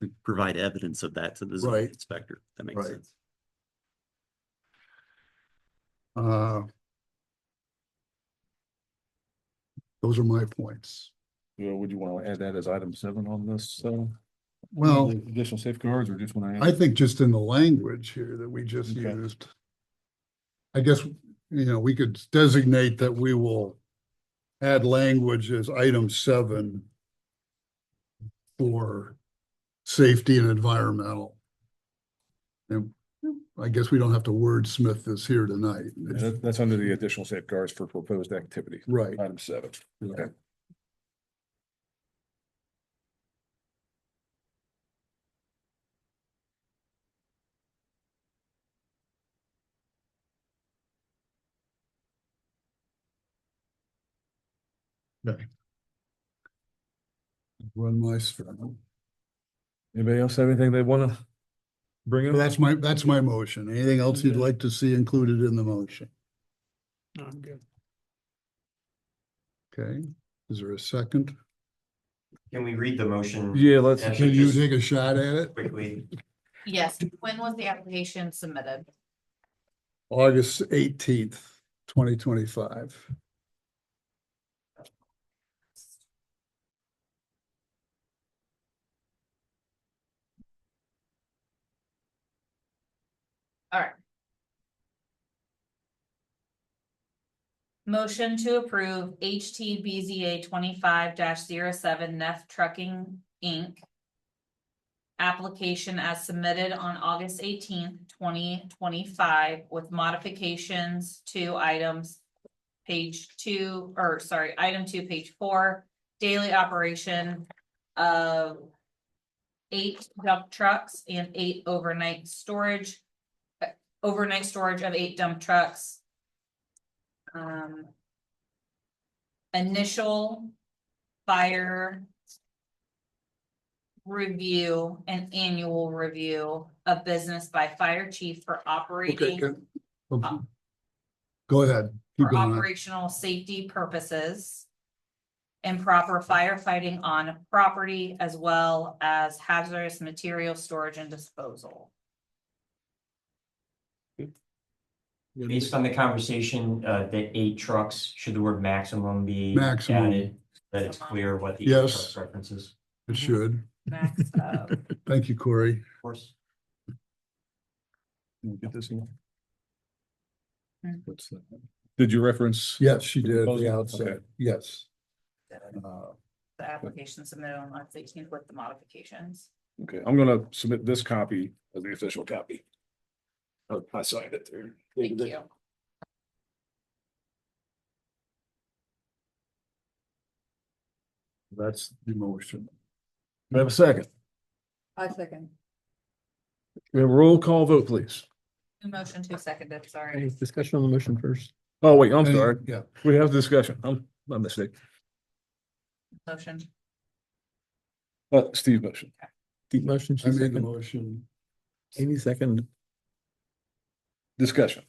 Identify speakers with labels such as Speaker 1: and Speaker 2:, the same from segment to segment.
Speaker 1: we provide evidence of that to the zoning
Speaker 2: Right.
Speaker 1: inspector. That makes
Speaker 2: Right.
Speaker 1: sense.
Speaker 2: Uh, Those are my points.
Speaker 3: Yeah, would you want to add that as item seven on this, uh?
Speaker 2: Well,
Speaker 3: Additional safeguards or just want to?
Speaker 2: I think just in the language here that we just
Speaker 3: Mm-hmm. Okay.
Speaker 2: used. I guess, you know, we could designate that we will add language as item seven for safety and environmental. And I guess we don't have to wordsmith this here tonight.
Speaker 3: That, that's under the additional safeguards for proposed activity,
Speaker 2: Right,
Speaker 3: item seven. Okay.
Speaker 2: run my strong.
Speaker 3: Anybody else have anything they want to bring
Speaker 2: So
Speaker 3: up?
Speaker 2: That's my, that's my motion. Anything else you'd like to see included in the motion?
Speaker 4: I'm good.
Speaker 2: Okay, is there a second?
Speaker 5: Can we read the motion
Speaker 3: Yeah, let's,
Speaker 5: Yeah.
Speaker 2: Can you take a shot at it?
Speaker 5: quickly?
Speaker 6: Yes, when was the application submitted?
Speaker 2: August eighteenth, twenty twenty-five.
Speaker 6: All right. Motion to approve HTBZA twenty-five 7 Neff Trucking, Inc. Application as submitted on August eighteenth, twenty twenty-five with modifications to items. Page two, or sorry, item two, page four, daily operation of. Eight dump trucks and eight overnight storage uh, overnight storage of eight dump trucks. Um. Initial fire. Review and annual review of business by fire chief for
Speaker 2: Okay.
Speaker 6: operating,
Speaker 2: good. Okay. Um, Go ahead. Keep
Speaker 6: for
Speaker 2: going.
Speaker 6: operational safety purposes. And proper firefighting on property as well as hazardous material storage and disposal.
Speaker 5: Based on the conversation, uh, the eight trucks, should the word maximum be
Speaker 2: Maximum.
Speaker 5: added? That it's clear what the. eight
Speaker 2: Yes.
Speaker 5: trucks References,
Speaker 2: It should.
Speaker 6: Max of
Speaker 2: Thank you, Corey.
Speaker 5: of course.
Speaker 3: Get this in.
Speaker 6: Mm.
Speaker 3: What's that? Did you reference?
Speaker 2: Yes, she did. at
Speaker 3: Okay.
Speaker 2: The outset. Yes. Uh,
Speaker 6: the application submitted on March eighteenth with the modifications.
Speaker 3: Okay, I'm gonna submit this copy as the official copy. Oh, I signed it there.
Speaker 6: Thank you.
Speaker 3: That's the motion. Do I have a second?
Speaker 6: I second.
Speaker 3: We have a roll call vote, please.
Speaker 6: Motion to second it, sorry.
Speaker 4: Any discussion on the motion first?
Speaker 3: Oh, wait, I'm
Speaker 2: any-
Speaker 3: sorry.
Speaker 2: Yeah,
Speaker 3: We have discussion. I'm, my mistake.
Speaker 6: Motion.
Speaker 3: Uh, Steve motion.
Speaker 4: Deep motion,
Speaker 2: I
Speaker 4: she
Speaker 2: made the
Speaker 4: second,
Speaker 2: motion.
Speaker 4: Amy second.
Speaker 3: Discussion.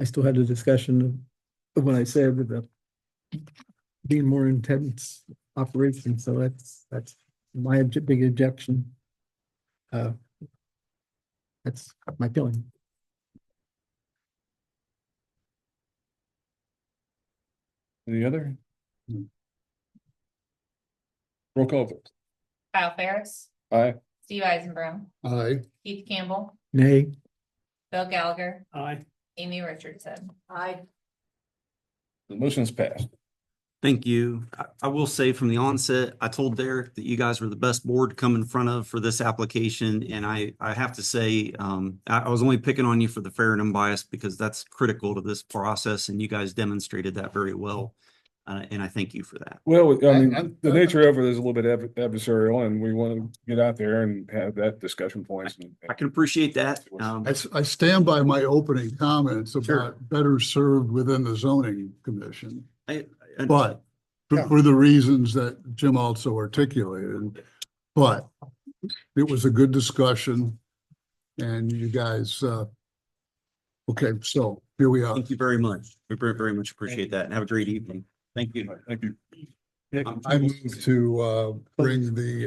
Speaker 4: I still had the discussion of what I said with the being more intense operation, so that's, that's my obje- big objection. Uh, That's my feeling.
Speaker 3: Any other?
Speaker 2: No.
Speaker 3: Roll call vote.
Speaker 6: Kyle Ferris,
Speaker 3: Aye.
Speaker 6: Steve Eisenbrow,
Speaker 2: Aye.
Speaker 6: Keith Campbell,
Speaker 4: Nay,
Speaker 6: Bill Gallagher,
Speaker 4: Aye.
Speaker 6: Amy Richardson. Aye.
Speaker 3: The motion's passed.
Speaker 1: Thank you. I, I will say from the onset, I told Derek that you guys were the best board to come in front of for this application. And I, I have to say, um, I, I was only picking on you for the fair and unbiased because that's critical to this process and you guys demonstrated that very well. Uh, and I thank you for that.
Speaker 3: Well, I
Speaker 2: I-
Speaker 3: mean,
Speaker 2: I'm-
Speaker 3: the nature of it is a little bit adver- adversarial and we want to get out there and have that discussion points. and-
Speaker 1: I can appreciate that. Um,
Speaker 2: I, s- I stand by my opening comments about better served within the zoning commission.
Speaker 1: I- I-
Speaker 2: But for- for the reasons that Jim also articulated, but it was a good discussion. And you guys, uh, okay, so here we are.
Speaker 1: Thank you very much. We very, very much appreciate that and have a great evening. Thank you.
Speaker 3: Thank you.
Speaker 2: I move to, uh, bring the